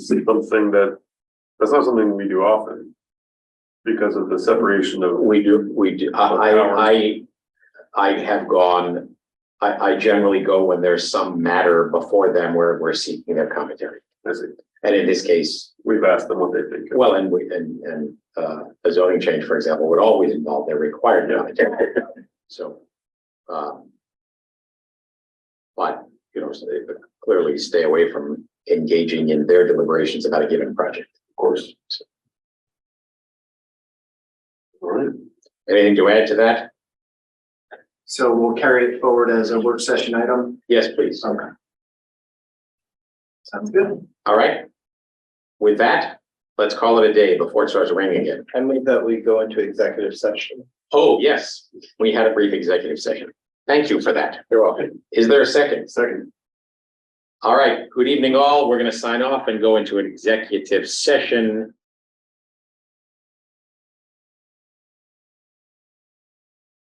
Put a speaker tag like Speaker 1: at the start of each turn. Speaker 1: something that, that's not something we do often. Because of the separation of,
Speaker 2: We do, we do, I, I, I, I have gone, I, I generally go when there's some matter before them where we're seeking their commentary.
Speaker 1: I see,
Speaker 2: And in this case,
Speaker 1: we've asked them what they think.
Speaker 2: well, and we, and, and, uh, a zoning change, for example, would always involve their required commentary. So, um. But, you know, so they- but clearly stay away from engaging in their deliberations about a given project, of course. So,
Speaker 1: All right,
Speaker 2: Anything to add to that?
Speaker 3: So we'll carry it forward as a work session item.
Speaker 2: Yes, please.
Speaker 3: Okay. Sounds good.
Speaker 2: All right. With that, let's call it a day before it starts raining again.
Speaker 4: I move that we go into executive session.
Speaker 2: Oh, yes, we had a brief executive session. Thank you for that. You're welcome. Is there a second?
Speaker 1: second,
Speaker 2: All right, good evening all. We're going to sign off and go into an executive session